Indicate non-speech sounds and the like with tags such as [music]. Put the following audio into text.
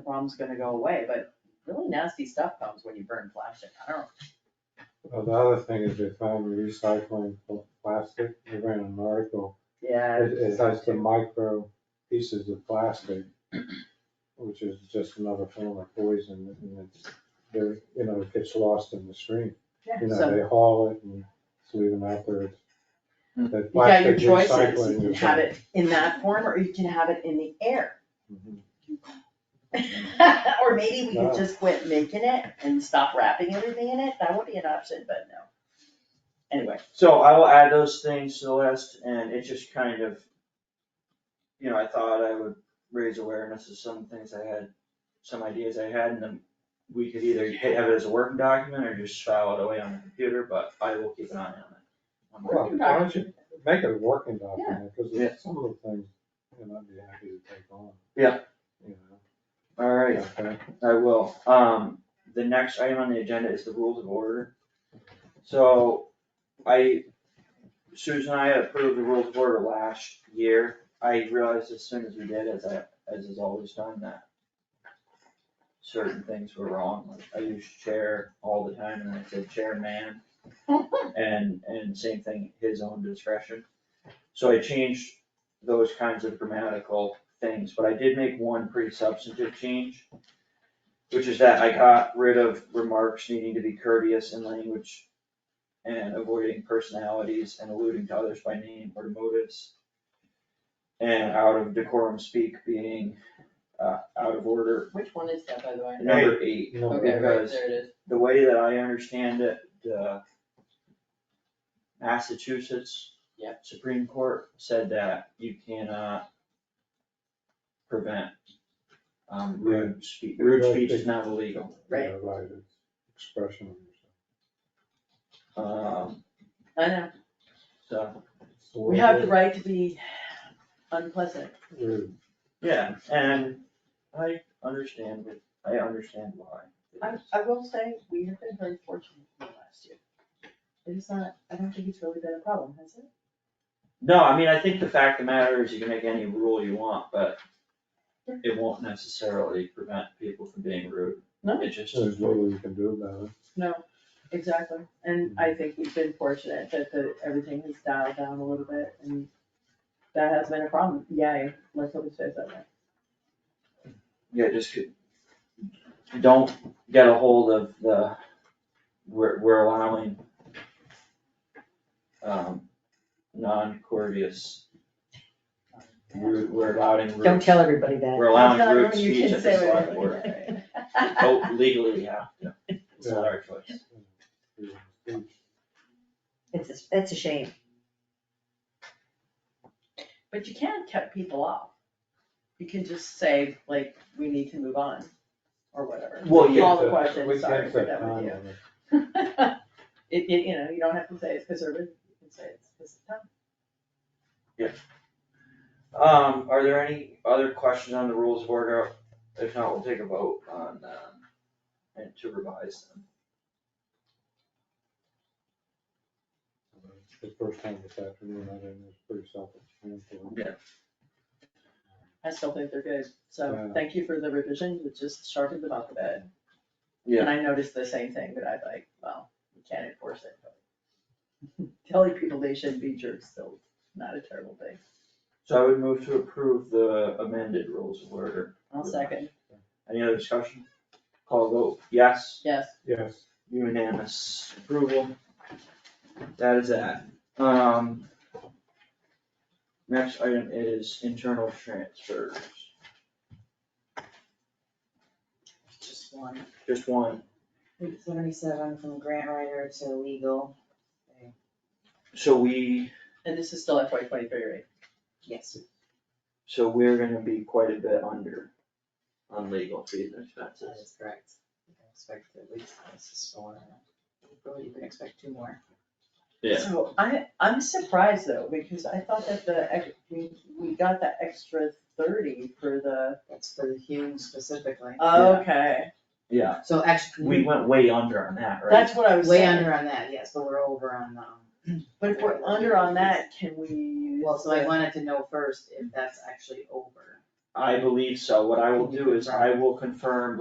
problem's gonna go away, but really nasty stuff comes when you burn plastic, I don't, Well, the other thing is they found recycling for plastic, they ran an article, yeah. it, it has the micro pieces of plastic, which is just another form of poison, and it's, they're, you know, it gets lost in the stream. You know, So- they haul it and it's leaving out there, it's, that Hmm. You got your plastic choices, you recycling can is. have it in that form, or you can have it in the air. Mhm. [laughs] Or maybe we could Yeah. just quit making it and stop wrapping everything in it, that would be an option, but no. Anyway, So I will add those things to the list and it just kind of, you know, I thought I would raise awareness of some things I had, some ideas I had and then we could either have it as a working document or just file it away on the computer, but I will keep an eye on it. I'm Well, working- why don't you make it a working document, because some of the things, you know, I'd be happy to take on. Yeah. You All know, right, okay. I will. Um, the next item on the agenda is the rules of order. So I, Susan and I approved the rules of order last year. I realized as soon as we did, as I, as is always done, that certain things were wrong. Like I use chair all the time and I said chairman. And, and same thing, his own discretion. So I changed those kinds of grammatical things, but I did make one pretty substantive change which is that I got rid of remarks needing to be courteous in language and avoiding personalities and alluding to others by name or motives. And out of decorum speak being, uh, out of order, which one is that, by the way? number eight. You know, Okay, right, Because there it is. the way that I understand it, the Massachusetts Yep. Supreme Court said that you cannot prevent, um, rude speech, rude speech is not illegal. Right. Yeah, Right, it's expression of yourself. Um, I know, so, It's a we have the little right to be unpleasant, rude. yeah, and I understand, it. I understand why. I, I will say, we have been very fortunate in the last year. It is not, I don't think it's really been a problem, has it? No, I mean, I think the fact of the matter is you can make any rule you want, but it won't necessarily prevent people from being rude. No. It just, There's little you can do about it. No, exactly, and I think we've been fortunate that the, everything has dialed down a little bit, and that has been a problem, yay, let's hope it stays that way. yeah, just could, don't get a hold of the, we're, we're allowing um, non-courteous, rude, we're allowing rude. Don't tell everybody that. We're allowing Tell rude everyone you speech can at say the select whatever you board. want. [laughs] Oh, legally, we have to. It's not our choice. Freedom of speech. It's, a- it's a shame. But you can cut people off, you can just say, like, we need to move on, or whatever. [laughs] Well, yeah, All the We questions, can't sorry, set that was time you. on it. It, it, you know, you don't have to say it's conservative, you can say it's, this is town. Um, are there any other questions on the rules of order? If not, we'll take a vote on, um, and to revise them. It's The first time this afternoon, I didn't, it's pretty self-explanatory. I still think they're good, so Yeah. thank you for the revision, it just sharpened them up a bit. Yeah. And I noticed the same thing, but I like, well, you can't enforce it, but [laughs] telling people they shouldn't be jerks, still not a terrible thing. So I would move to approve the amended rules of order. I'll second, Any other discussion? Call vote, yes, yes, Yes, unanimous approval. That is that. Um. Next item is internal transfers, Just one. just one. Seventy-seven from grant writer to legal. So we and this is still FY twenty-three, right? Yes. So we're gonna be quite a bit under on legal fees and That expenses. is correct. You can Expect at least, this is four. Probably you can expect two more. So I, I'm surprised though, because I thought that the, ex- we, we got that extra thirty for the, That's for the Hume specifically. okay, Yeah, So we actually, went way under on that, right? that's what I was way saying, under on that, yes, but we're over on, um, but if we're under on that, can we use? well, so I the- wanted to know first if that's actually over. I believe so, what I will do is I will confirm